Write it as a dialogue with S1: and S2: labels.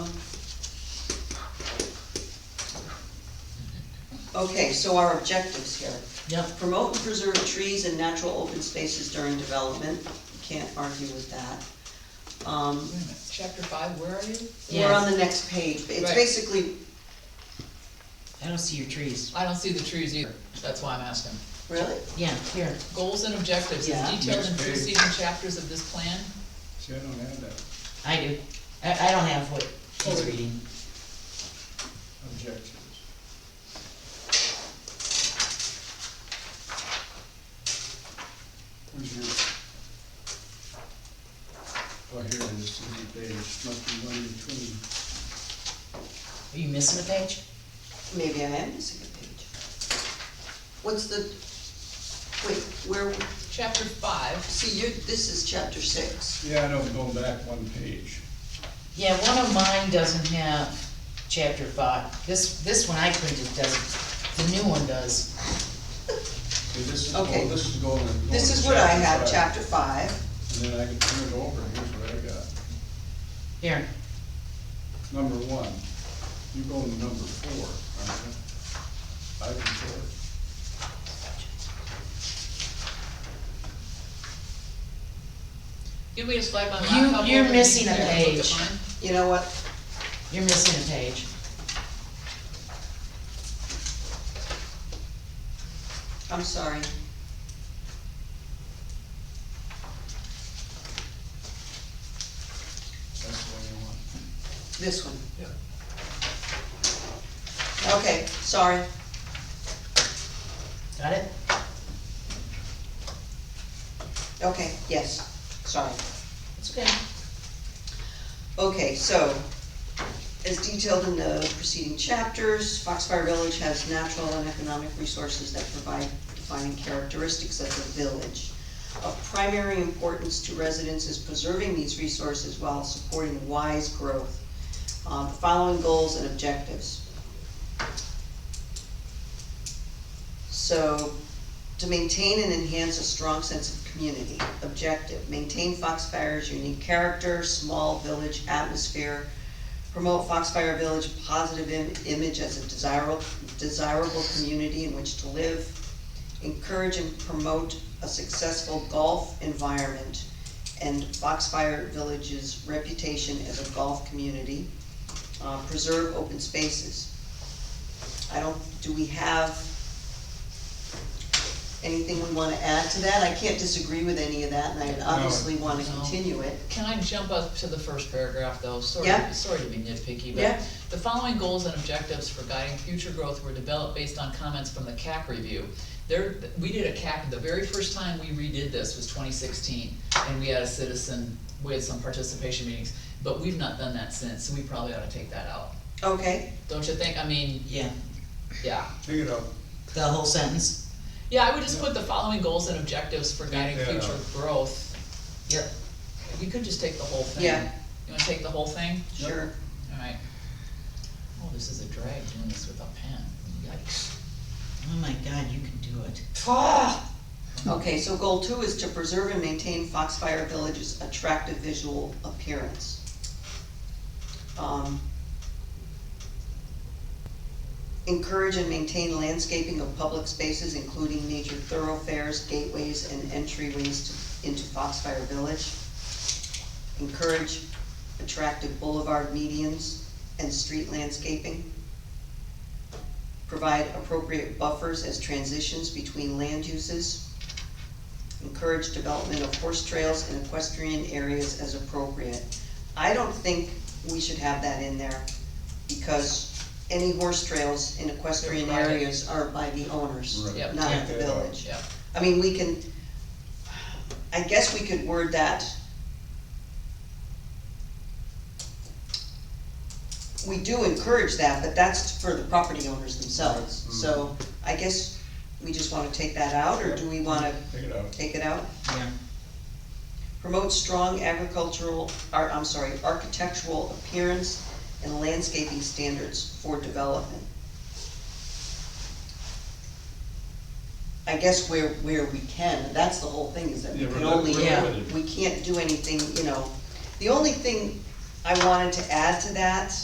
S1: Okay, so our objectives here.
S2: Yep.
S1: Promote and preserve trees and natural open spaces during development, can't argue with that. Um,
S3: Wait a minute, Chapter five, where are you?
S1: We're on the next page, it's
S3: Right.
S1: basically,
S2: I don't see your trees.
S3: I don't see the trees either, that's why I'm asking.
S1: really?
S2: Yeah, here,
S3: Goals and objectives,
S2: Yeah.
S3: as detailed in
S4: Next page.
S3: preceding chapters of this plan.
S4: See, I don't have that
S2: I do. I, I don't have what he's reading.
S4: objectives. Where's your? Oh, here it is, the page, must be one between.
S2: Are you missing a page?
S1: Maybe I am missing a page. What's the, wait, where,
S3: Chapter five,
S1: see, you, this is chapter six.
S4: Yeah, I know, I'm going back one page.
S2: Yeah, one of mine doesn't have chapter five. This, this one I printed doesn't. The new one does.
S4: Okay, This is,
S1: Okay.
S4: oh, this is going. going
S1: This
S4: to
S1: is what I have,
S4: five.
S1: chapter five.
S4: And then I can turn it over, here's what I got.
S2: Here,
S4: Number one, you go to number four, aren't you? Item four.
S3: give me a slide on
S2: You-
S3: laptop.
S2: you're
S3: over and
S2: missing
S3: you
S2: a
S3: can look at
S2: page.
S3: mine.
S1: You know what,
S2: you're missing a page.
S1: I'm sorry.
S4: That's the one you want.
S1: This one.
S4: Yeah.
S1: Okay, sorry.
S2: Got it?
S1: Okay, yes, sorry.
S2: It's okay.
S1: Okay, so, as detailed in the preceding chapters, Foxfire Village has natural and economic resources that provide defining characteristics of the village. Of primary importance to residents is preserving these resources while supporting wise growth. Uh, the following goals and objectives. So, to maintain and enhance a strong sense of community. Objective, maintain Foxfire's unique character, small village atmosphere. Promote Foxfire Village positive im- image as a desirable, desirable community in which to live. Encourage and promote a successful golf environment and Foxfire Village's reputation as a golf community. Uh, preserve open spaces. I don't, do we have anything we wanna add to that? I can't disagree with any of that, and I obviously wanna
S3: No.
S1: continue it.
S3: Can I jump up to the first paragraph though? Sorry,
S1: Yeah.
S3: sorry to be nitpicky, but
S1: Yeah.
S3: the following goals and objectives for guiding future growth were developed based on comments from the CAC review. There, we did a CAC, the very first time we redid this was twenty sixteen, and we had a citizen, we had some participation meetings, but we've not done that since, so we probably ought to take that out.
S1: Okay,
S3: Don't you think? I mean,
S2: Yeah,
S3: yeah.
S4: Take it out.
S2: the whole sentence.
S3: Yeah, I would just put the following goals and objectives for guiding
S4: Yeah.
S3: future growth.
S2: Yep.
S3: We could just take the whole thing.
S1: Yeah.
S3: You wanna take the whole thing?
S1: sure.
S3: Alright. Oh, this is a drag doing this with a pen. Yikes.
S2: Oh my God, you can do it.
S1: Okay, so goal two is to preserve and maintain Foxfire Village's attractive visual appearance. Um, Encourage and maintain landscaping of public spaces, including major thoroughfares, gateways, and entryways to- into Foxfire Village. Encourage attractive boulevard medians and street landscaping provide appropriate buffers as transitions between land uses, encourage development of horse trails and equestrian areas as appropriate. I don't think we should have that in there, because any horse trails in equestrian
S3: They're private.
S1: areas are by the owners,
S4: Right.
S3: Yep.
S1: not
S2: Yeah.
S1: the village.
S3: Yeah,
S1: I mean, we can, I guess we could word that. We do encourage that, but that's for the property owners themselves, so I guess we just wanna take that out, or do we wanna
S4: Take it out.
S1: take it out?
S2: Yeah.
S1: Promote strong agricultural, or, I'm sorry, architectural appearance and landscaping standards for development. I guess where, where we can, that's the whole thing, is that we
S4: Yeah,
S1: can
S4: we're-
S1: only,
S2: we're Yeah.
S4: limited.
S1: we can't do anything, you know. The only thing I wanted to add to that